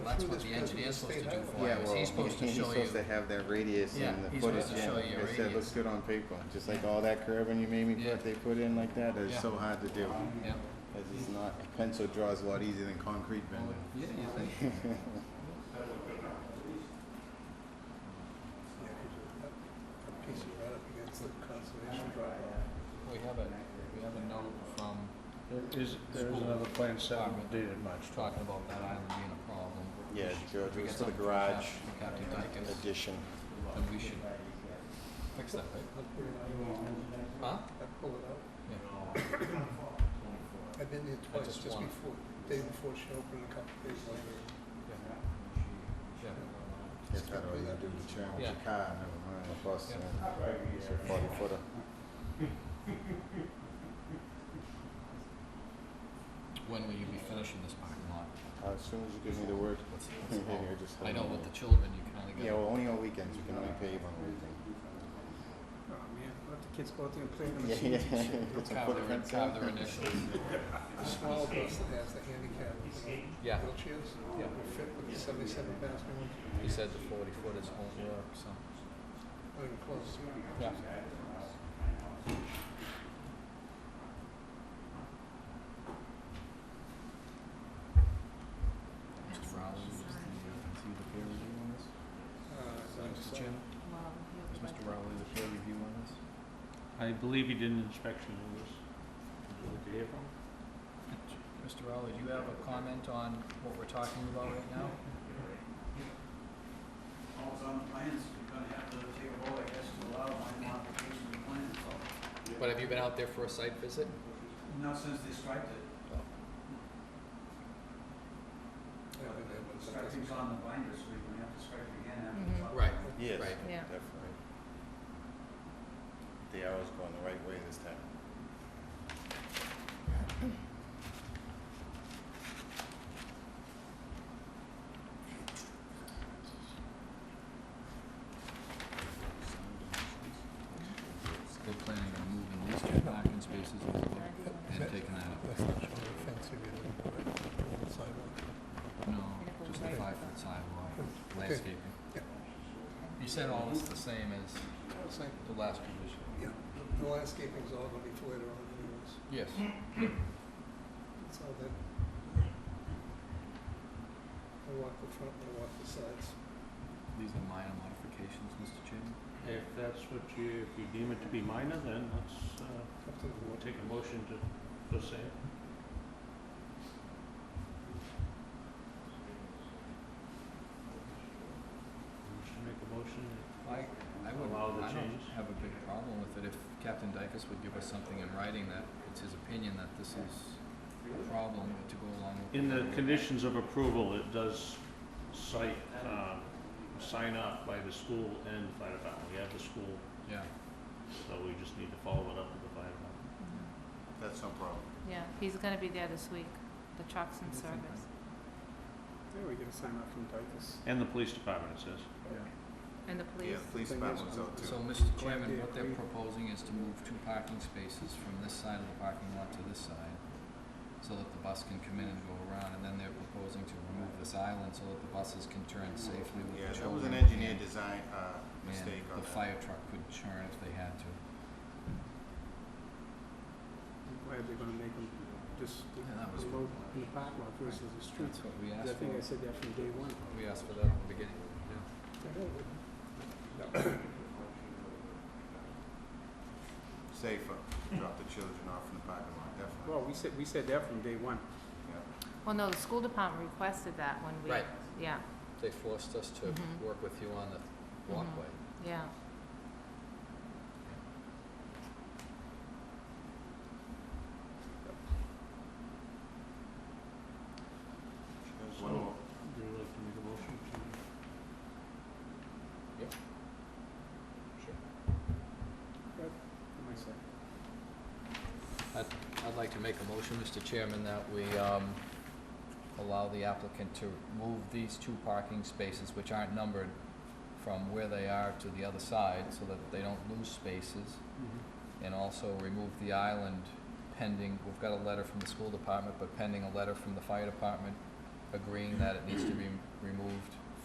that's through what this the because of engineer's the supposed to state do highway. for you, Yeah, is well, he's supposed to he- show He's you. supposed to have that radius Yeah, and the he's footage supposed in to show it. you a It said, looks radius. good on paper, just like Yeah. all that curving you made me Yeah. put, they put in like that, Yeah. that's so hard to do. Yeah, Cause it's not, pencil draws a lot easier than concrete bending. yeah, you think? Yeah, 'cause you're up- up piece of right up against the conservation drive. We have a, we have a note from There is, there is another plan settlement dated March Just 12th. talking about that island being a problem. Yeah, George, We it was got for the something from garage Cap- from Captain Dykes, addition. then we should fix that, right? I'll pull it Huh? out. I pull it out. Yeah. I've been there I twice, just just want- before, day before she opened, a couple days later. Yeah. That's how all you do to turn with your Yeah. car, never mind a bus. and It's a forty footer. When will you be finishing this parking lot? Uh, As soon as you give me the word. What's- you're what's all- just I know holding with the it. children, you can only Yeah, go, well, only on weekends, you can only pave on weekends. Oh, man, let the kids go out there and play on Yeah, yeah. Put some carve their, footprints carve in. their initials. The small bus that has the handicap, you know, Yeah. wheelchairs, Yeah. will fit with the seventy-seven passenger one, He said the forty foot is won't work, so. not even close. Yeah. Mr. Rowley, was the, was he the peer review on this? Mr. Chairman, was Mr. Rowley the peer review on this? I believe he did an inspection of this. Did you hear from him? Mr. Rowley, do you have a comment on what we're talking about right now? Well, it's on the plans, you're gonna have to take a vote, I guess, to allow my modification of the plan, so, But have you been out there for a site visit? not since they striped it. I've been there, but it's not- Striping's on the binder, so you're gonna have to stripe it again Mhm. Mm-hmm. after. Right. Yes, Right. Yeah. definitely. The arrow's going the right way this time. We're planning on moving these two parking spaces over and taking that up. That's not showing the fence you're gonna put on the sidewalk. No, just a five foot sidewalk, landscaping. Yeah. You said all this the same as It's like, the last revision? yeah, the landscaping's all gonna be for later on anyways, Yes. it's all that. I walk the front, I walk the sides. These are minor modifications, Mr. Chairman. If that's what you, if you deem it to be minor, then let's, uh, Up to the board. we'll take a motion to, to say it. Should make a motion I, I would, Allow the I don't change. have a big problem with it if Captain Dykus would give us something in writing that it's his opinion that this is a problem to go along with. In the conditions of approval, it does cite, um, sign off by the school and the fire department. We have the school, Yeah, so we just need to follow it up with the fire department. That's no problem. Yeah, he's gonna be there this week, the truck's in service, Yeah, we get a sign off from Dykus. And the police department, it says. yeah. and the Yeah, police. police Thing is, department's um, out So, too. Mr. Chairman, what they're proposing is to move two parking spaces from this side of the parking lot to this side so that the bus can come in and go around, and then they're proposing to remove this island so that the buses can turn safely with Yeah, the children. that was an engineer and- design, uh, mistake on And the that. fire truck could churn if they had to. Why are they gonna make them just Yeah, that was- load in the park lot versus the street? That's what we I asked think I for. said that from day one. We asked for that at the beginning. Safer, drop the children off in the parking lot, definitely. Well, we said, we said that from day one. Yeah. Well, no, the school department requested that when we, Right. yeah, Mm-hmm. They forced us to Mhm. work with you on the walkway. yeah. So, One more. Would you like to make a motion to? I'd like to make a motion, Mr. Chairman, that we um, allow the applicant to move these two parking spaces, which aren't numbered, from where they are to the other side, so that they don't lose spaces, Mm-hmm. and also remove the island pending, we've got a letter from the school department, but pending a letter from the fire department agreeing that it needs to be